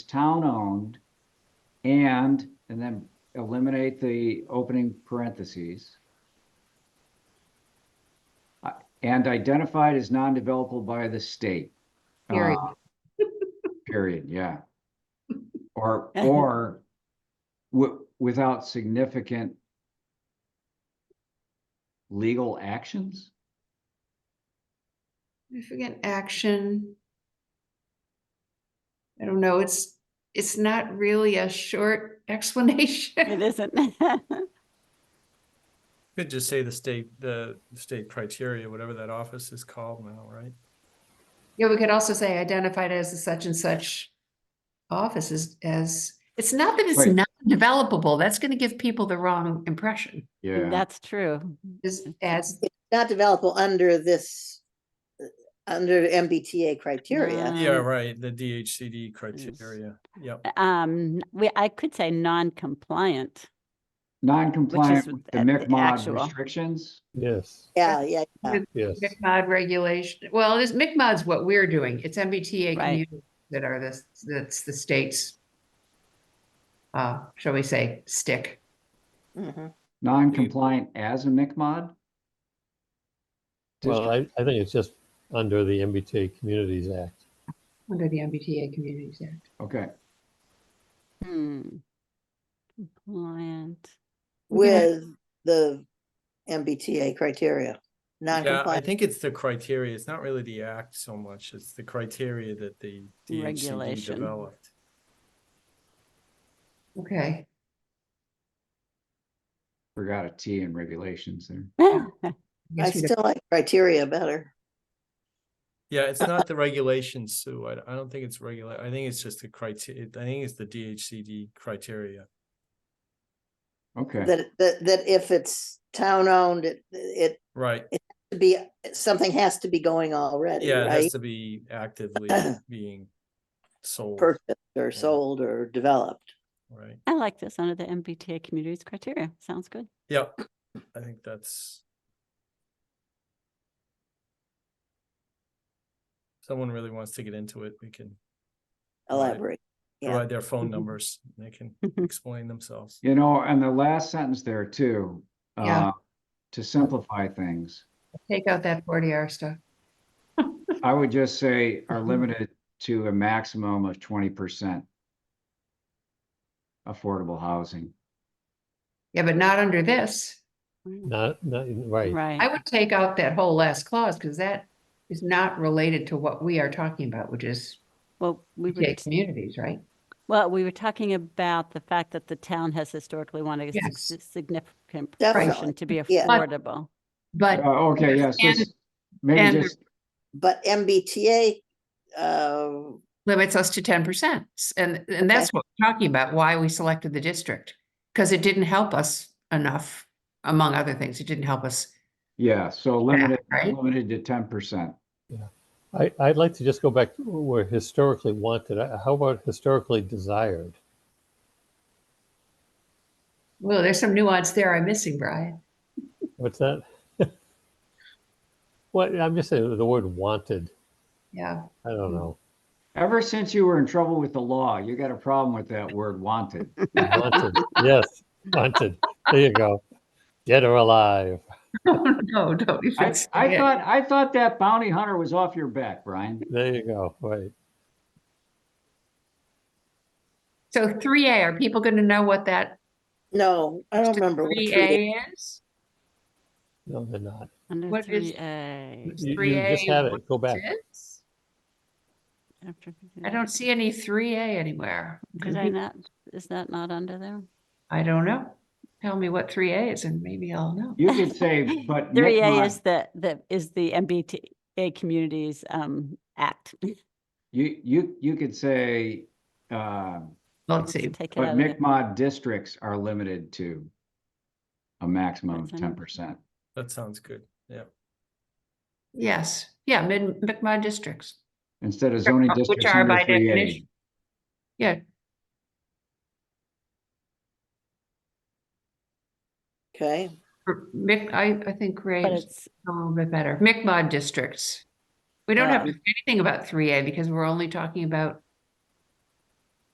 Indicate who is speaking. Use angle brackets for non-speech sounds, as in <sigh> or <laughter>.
Speaker 1: town-owned and, and then eliminate the opening parentheses. Uh, And identified as non-developable by the state. Uh,
Speaker 2: Period.
Speaker 1: Period,
Speaker 3: <laughs>
Speaker 1: yeah. Or, or wi- without significant legal actions?
Speaker 2: Significant action. I don't know, it's, it's not really a short <laughs> explanation.
Speaker 3: It isn't. <laughs>
Speaker 4: Could just say the state, the state criteria, whatever that office is called now, right?
Speaker 2: Yeah, we could also say identified as a such and such offices as, it's not that it's
Speaker 1: Right.
Speaker 2: not developable, that's gonna give people the wrong impression.
Speaker 1: Yeah,
Speaker 3: That's true.
Speaker 2: Just as,
Speaker 5: not developable under this, uh, under MBTA criteria.
Speaker 4: Yeah,
Speaker 3: Um,
Speaker 4: right, the DHCD criteria, yep.
Speaker 3: Um, we, I could say non-compliant.
Speaker 1: non-compliant with
Speaker 3: with
Speaker 1: the
Speaker 3: the- the
Speaker 1: MICMOD
Speaker 3: actual.
Speaker 1: restrictions?
Speaker 6: Yes,
Speaker 5: Yeah, yeah, yeah.
Speaker 6: yes.
Speaker 2: McMod regulation, well, it is, McMod's what we're doing, it's MBTA
Speaker 3: Right.
Speaker 2: communities that are the, that's the state's, uh, shall we say, stick.
Speaker 5: Mhm.
Speaker 1: Non-compliant as a MICMOD?
Speaker 6: Well,
Speaker 1: District-
Speaker 6: I, I think it's just under the MBTA Communities Act.
Speaker 2: Under the MBTA Communities Act.
Speaker 1: Okay,
Speaker 3: Hmm. Compliant. <laughs>
Speaker 5: With the MBTA criteria,
Speaker 4: Yeah, I
Speaker 5: non-compliant.
Speaker 4: think it's the criteria, it's not really the act so much, it's the criteria that the DHCD
Speaker 3: Regulation.
Speaker 4: developed.
Speaker 2: Okay,
Speaker 1: forgot a T in regulations there.
Speaker 2: I
Speaker 5: I
Speaker 2: guess we don't-
Speaker 5: still like criteria better.
Speaker 4: Yeah, it's not the regulations, Sue, I, I don't think it's regula, I think it's just the criteria, I think it's the DHCD criteria.
Speaker 1: Okay,
Speaker 5: That, that, that if it's town-owned, it, it
Speaker 4: Right,
Speaker 5: to be, something has to be going already,
Speaker 4: yeah, it has
Speaker 5: right?
Speaker 4: to be actively being sold,
Speaker 5: Purchased or
Speaker 4: Yeah.
Speaker 5: sold or developed.
Speaker 4: right?
Speaker 3: I like this under the MBTA communities criteria. Sounds good.
Speaker 4: Yep, I think that's. Someone really wants to get into it, we can Right.
Speaker 5: Elaborate. Yeah.
Speaker 4: provide their phone
Speaker 3: Mhm.
Speaker 4: numbers, and they can explain themselves.
Speaker 1: you know, and the last sentence there too.
Speaker 2: Yeah.
Speaker 1: uh, To simplify things,
Speaker 2: take out that forty hour stuff.
Speaker 1: I would just say
Speaker 2: <laughs>
Speaker 1: are limited to a maximum of twenty percent affordable housing.
Speaker 2: Yeah, but not under this.
Speaker 3: Wow.
Speaker 6: Not, not, right.
Speaker 2: I
Speaker 3: Right.
Speaker 2: would take out that whole last clause because that is not related to what we are talking about, which is
Speaker 3: Well, we were,
Speaker 2: PTA communities, right?
Speaker 3: well, we were talking about the fact that the town has historically wanted a
Speaker 2: Yes.
Speaker 3: sig- significant
Speaker 5: Definitely,
Speaker 3: portion to be
Speaker 5: yeah.
Speaker 2: But-
Speaker 3: affordable.
Speaker 1: Uh,
Speaker 2: But
Speaker 1: Okay, yes, this- maybe
Speaker 2: and-
Speaker 1: just,
Speaker 5: But MBTA, uh,
Speaker 2: limits us to ten percent. And, and that's what we're talking about, why we selected the district. Because it didn't help us enough, among other things. It didn't help us.
Speaker 1: yeah, so limited,
Speaker 2: right?
Speaker 1: limited to ten percent.
Speaker 6: I, I'd like to just go back to where historically wanted. Uh, How about historically desired?
Speaker 2: Well, there's some nuance there I'm missing, Brian.
Speaker 6: What's that? <laughs> Well, I'm just saying the word wanted.
Speaker 2: Yeah.
Speaker 6: I don't know.
Speaker 1: Ever since you were in trouble with the law, you got a problem with that word wanted.
Speaker 6: Wanted, yes, wanted. There you go. Dead or alive.
Speaker 2: <laughs> No, don't. be
Speaker 1: I,
Speaker 2: fixated.
Speaker 1: I thought, I thought that bounty hunter was off your back, Brian.
Speaker 6: There you go. Right.
Speaker 2: So three A, are people going to know what that
Speaker 5: no, I don't remember. what
Speaker 2: three
Speaker 5: treaty-
Speaker 2: A is?
Speaker 6: No, they're not.
Speaker 3: Under
Speaker 2: What is-
Speaker 3: three A.
Speaker 2: It's
Speaker 6: You- You
Speaker 2: 3A
Speaker 6: just had it. Go back.
Speaker 2: Six? I don't see any three A anywhere.
Speaker 3: Did I not, is that not under there?
Speaker 2: I don't know. Tell me what three A is and maybe I'll know.
Speaker 1: You could
Speaker 3: <laughs>
Speaker 1: say, but.
Speaker 3: Three A
Speaker 1: McMod-
Speaker 3: is the, the, is the MBTA Communities um, Act.
Speaker 1: You, you, you could say, uh,
Speaker 2: Let's see.
Speaker 3: Take it
Speaker 1: but
Speaker 3: out of there.
Speaker 1: MICMOD districts are limited to a maximum of
Speaker 3: That's
Speaker 1: ten
Speaker 3: under-
Speaker 1: percent.
Speaker 4: That sounds good, yeah.
Speaker 2: Yes, yeah, mid, McMod districts.
Speaker 1: Instead of zoning
Speaker 2: Which
Speaker 1: districts
Speaker 2: are
Speaker 1: under
Speaker 2: by
Speaker 1: three A.
Speaker 2: definition- Yeah.
Speaker 5: Okay,
Speaker 2: or Mic, I, I think
Speaker 3: But
Speaker 2: Ray's
Speaker 3: it's,
Speaker 2: a little bit better. McMod districts. We don't have
Speaker 5: Um,
Speaker 2: to say anything about three A because we're only talking about